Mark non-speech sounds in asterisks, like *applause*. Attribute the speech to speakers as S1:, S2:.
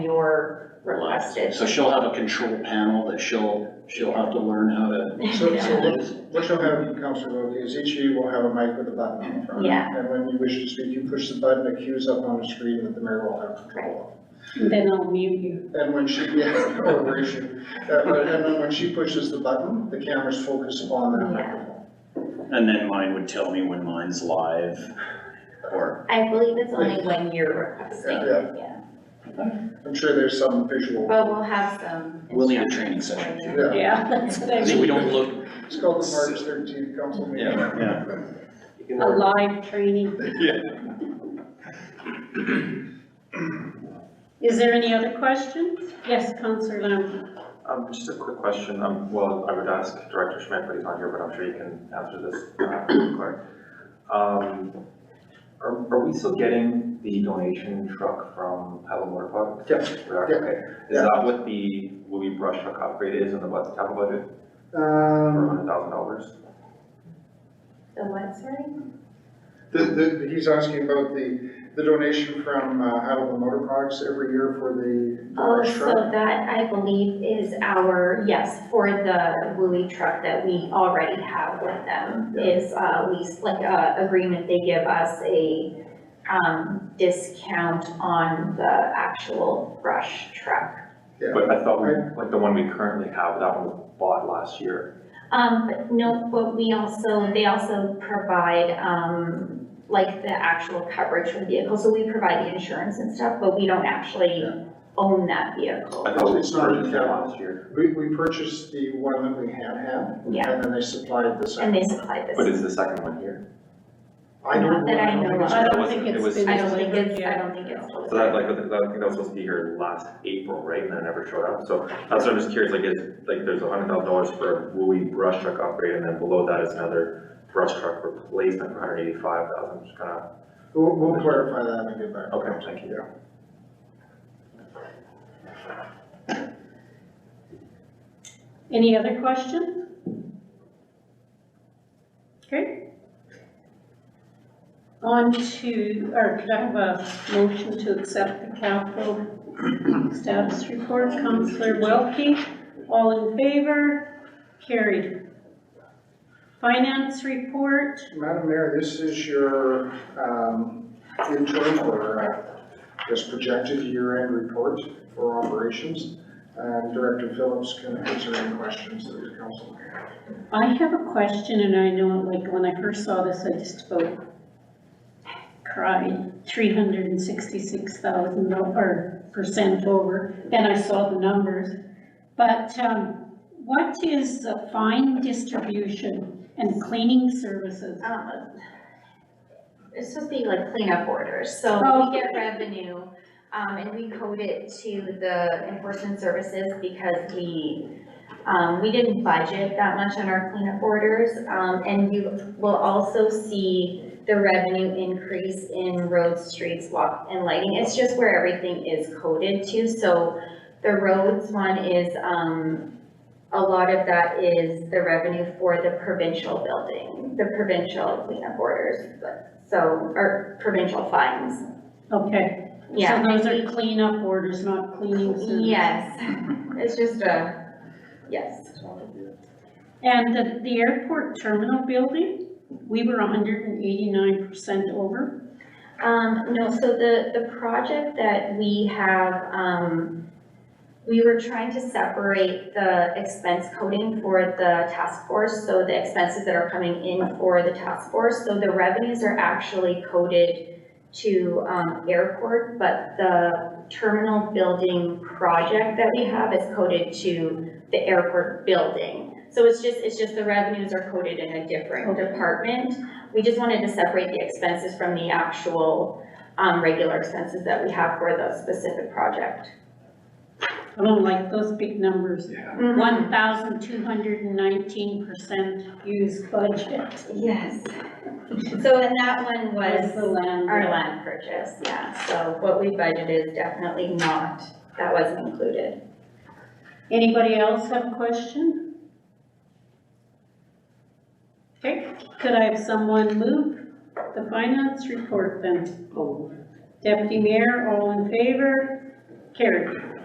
S1: your requested.
S2: So she'll have a control panel that she'll, she'll have to learn how to.
S3: So, so what- what you'll have, Counselor Lowry, is each of you will have a mic with a button in front.
S1: Yeah.
S3: And when you wish to speak, you push the button, it queues up on the screen that the mayor will have control
S4: Then I'll mute you.
S3: of. And when she, *laughs* yeah, or raise you. Uh, but- And then when she pushes the button, the cameras focus on that microphone.
S5: And then mine would tell me when mine's live, or,
S1: I believe it's only when you're requesting,
S3: Yeah.
S1: yeah,
S3: I'm sure there's some visual,
S1: but we'll have some.
S2: We'll need a training
S1: instructions
S2: session
S1: for you.
S3: yeah.
S4: Yeah, *laughs* that's what I
S2: So
S4: mean.
S2: we don't look,
S3: It's called the March thirteenth council meeting.
S2: Yeah,
S5: yeah.
S4: A live training.
S5: Yeah.
S4: Is there any other questions? Yes, Counselor Lam.
S6: Um, just a quick question, um, well, I would ask Director Schmidt, but he's not here, but I'm sure you can answer this, uh, Clark. Um, are, are we still getting the donation truck from Paddle Motor Products?
S3: Yep.
S6: We are,
S3: Yep.
S6: okay. Is
S3: Yeah.
S6: that what the Louis Brush truck upgrade is in the budget, capital budget, for
S3: Um,
S6: hundred thousand dollars?
S1: The what, sorry?
S3: the, the, he's asking about the, the donation from, uh, Hannibal Motor Products every year for the. the
S1: Oh,
S3: brush
S1: so
S3: truck.
S1: that I believe is our, yes, for the Wooley truck that we already have with them is uh lease, like a agreement, they give us a um discount on the actual brush truck.
S3: Yeah.
S6: But I thought, we- like, the one we currently have, that one was bought last year.
S1: Um, but no, but we also, they also provide um like the actual coverage for the vehicle, so we provide the insurance and stuff, but we don't actually
S3: Yeah.
S1: own that vehicle,
S6: I thought we
S3: It's not in
S6: purchased it
S3: capital.
S6: last year,
S3: We, we purchased the one that we had had,
S1: yeah,
S3: and then they supplied the
S1: and
S3: second.
S1: they supply this.
S6: but is the second one here?
S3: I don't
S1: Not that I
S3: know, I
S1: know
S3: don't
S1: of.
S3: think
S4: I
S6: It
S4: don't think it's
S6: wasn't- it was-
S4: been
S1: I don't think
S4: delivered
S1: it's, I
S4: yet.
S1: don't think it's.
S6: So that, like, I think that was supposed to be here last April, right, and then it never showed up, so that's what I'm just curious, like, is, like, there's a hundred thousand dollars for a Wooley brush truck upgrade, and then below that is another brush truck replacement for hundred eighty-five thousand, just kinda,
S3: it's- We'll, we'll clarify that and get back.
S6: okay, thank you.
S4: Any other questions? Okay. On to, or could I have a motion to accept the capital status report, Counselor Welke? All in favor? Carried. Finance report,
S3: Madam Mayor, this is your, um, interim or, uh, this projected year-end report for operations. And Director Phillips can answer any questions that the council may have.
S4: I have a question, and I know, like, when I first saw this, I just about cried, three hundred and sixty-six thousand, or percent over, then I saw the numbers. But, um, what is the fine distribution and cleaning services?
S1: Um, It's supposed to be like cleanup orders, so
S4: Oh.
S1: we get revenue, um, and we code it to the enforcement services because we, um, we didn't budget that much on our cleanup orders, um, and you will also see the revenue increase in roads, streets, walk, and lighting, it's just where everything is coded to, so the roads one is, um, a lot of that is the revenue for the provincial building, the provincial cleanup orders, but, so, or provincial fines,
S4: Okay, so
S1: yeah.
S4: those are cleanup orders, not cleaning services? *laughs*
S1: Yes, it's just a, yes,
S4: And the, the airport terminal building, we were hundred and eighty-nine percent over,
S1: um, no, so the, the project that we have, um, we were trying to separate the expense coding for the task force, so the expenses that are coming in for the task force, so the revenues are actually coded to um, airport, but the terminal building project that we have is coded to the airport building. So it's just, it's just the revenues are coded in a different
S4: Okay.
S1: department. We just wanted to separate the expenses from the actual um, regular expenses that we have for the specific project.
S4: I don't like those big numbers.
S1: Mm-hmm.
S4: one thousand two hundred and nineteen percent used budget.
S1: Yes. So and that one
S4: Was the
S1: was
S4: land.
S1: our land purchase, yeah. So what we budgeted is definitely not, that wasn't included.
S4: Anybody else have a question? Okay, could I have someone move the finance report then? Oh, Deputy Mayor, all in favor? Carried.